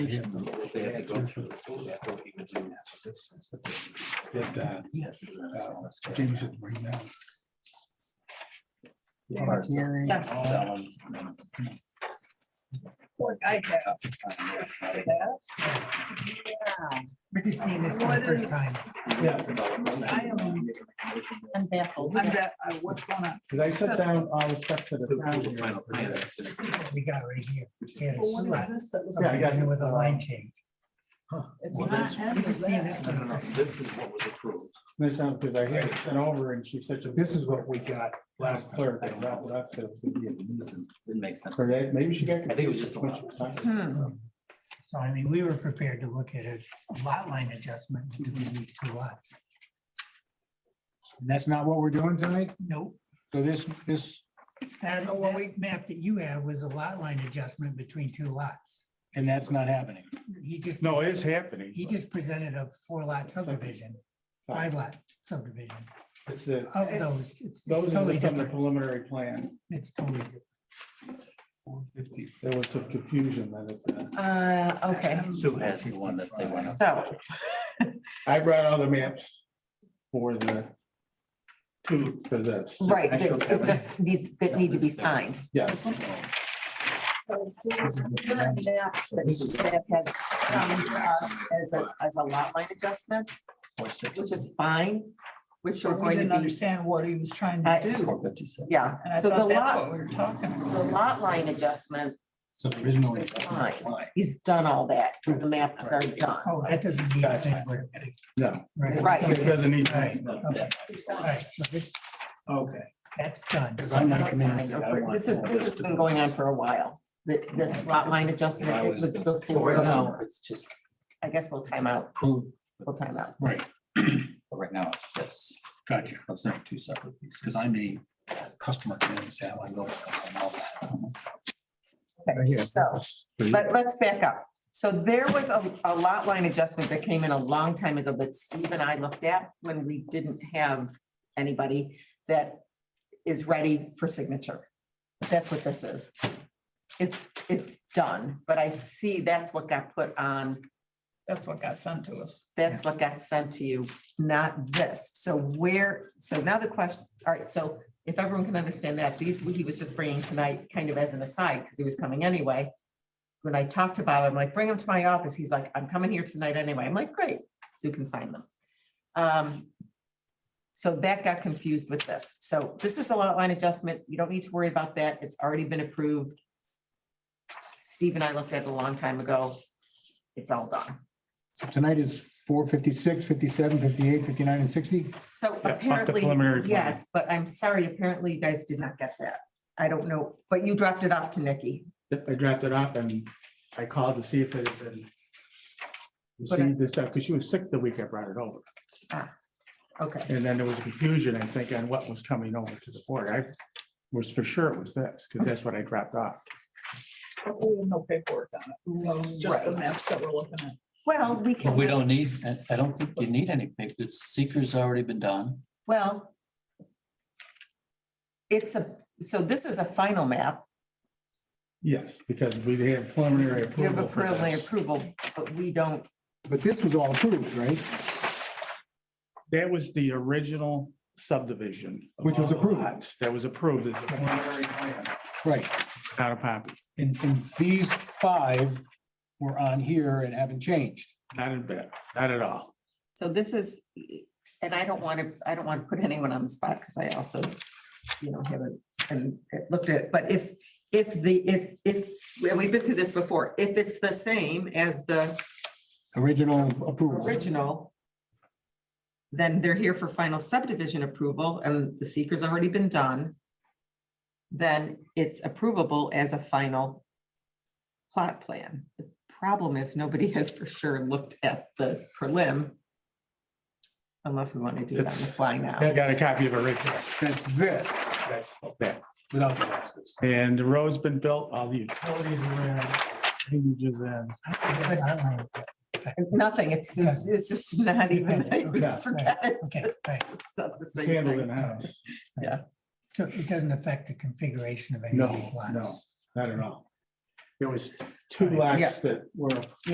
Get that. uh, James had to bring that. Public hearing. Yeah. Like I have. We're just seeing this for the What first is- time. I am, I'm baffled. I'm that, I what's going on. Did I put down all the stuff to the. That's We got right here. Yeah, Well, What is it's- this that was? Yeah, I got With a uh, line change. It's Well, not this- end we of can see that. this. This is what was approved. This sounds because I had it sent over and she said, this is what we got last clerk. I wrapped it up, so it's gonna be a minute. Didn't make sense. So that- Maybe she got. I think it was just a lot. Hmm. So I mean, we were prepared to look at a lot line adjustment to do these two lots. And That's not what we're doing tonight. Nope. So this, this, That, So what we- that map that you have was a lot line adjustment between two lots. and that's not happening. He just. No, it's happening. He just presented a four lot subdivision, five lot subdivision. It's the, Of those, it's it's those totally are from the different. preliminary plan. It's totally different. There was some confusion then at the. Uh, okay, Sue has the one that they went up. so, I brought all the maps for the two for this. right, it's it's just these that need to be signed. Yeah. So there's other maps That that have come to us as a, as a lot line adjustment, which is fine, which So we're we going didn't to be, understand what he was trying I- to do. yeah. And I So the thought that's what lot, we were talking about. the lot line adjustment So there is no. is fine. He's done all that. The maps are done. Oh, that doesn't mean anything. No. Right. Right. It doesn't need. Right, okay, all right, so this, Okay. that's done. Because I'm not coming in and This say, I want is, "Oh, this has been going on for a while, Th- this lot line adjustment it was before. Right now, it's just I guess we'll time out, approved. we'll time out. Right, But right now, it's this. gotcha. Those are two separate pieces, because I'm a customer, and say, I know it's all that. Okay, so, Mhm. but let's back up. So there was a, a lot line adjustment that came in a long time ago that Steve and I looked at when we didn't have anybody that is ready for signature. That's what this is. It's, it's done, but I see that's what got put on That's what got sent to us. That's what got sent to you, not this. So where, so now the question, all right, so if everyone can understand that, these, he was just bringing tonight kind of as an aside, because he was coming anyway. When I talked to Bob, I'm like, bring him to my office. He's like, I'm coming here tonight anyway. I'm like, great, Sue can sign them. Um, So that got confused with this. So this is a lot line adjustment. You don't need to worry about that. It's already been approved. Steve and I looked at it a long time ago. It's all done. So Tonight is four fifty-six, fifty-seven, fifty-eight, fifty-nine, and sixty. So Yeah, off the apparently, preliminary plan. yes, but I'm sorry, apparently you guys did not get that. I don't know, but you dropped it off to Nikki. Yep, I drafted up and I called to see if it had been received this stuff, because she was sick the week I brought it over. Okay, And then there was confusion, I think, on what was coming over to the board. I was for sure it was this, because that's what I dropped off. But We have no paperwork on it. So it's just the Right. maps that we're looking at. well, we can. But we don't need, I- I don't think you need any big, the seeker's already been done. Well. It's a, so this is a final map. Yes, because we had preliminary You have approval. a for preliminary this. approval, but we don't, But this was all approved, right? That was the original subdivision. of Which was all the approved. lots That was approved as a preliminary plan, Right. not a copy, And, and these five were on here and haven't changed. not a bit, not at all. so this is, and I don't want to, I don't want to put anyone on the spot because I also, you know, haven't and looked at, it. but if, if the, if, if, and we've been through this before, if it's the same as the Original approval. original. Then they're here for final subdivision approval and the seeker's already been done. Then it's approvable as a final plot plan. The Problem is, nobody has for sure looked at the prelim. Unless we want to do it on the It's- fly now. I got a copy of it right there. That's this. That's that. Without the boxes. And the road's been built, all the utilities are in, hinges in. Lot line, Nothing, it's, it's just not even, I Yeah. forget it. Okay, all right. It's not the It's same Handled in thing. house. So it doesn't affect the configuration of any of No, these lots? no, not at all. There was two lots that were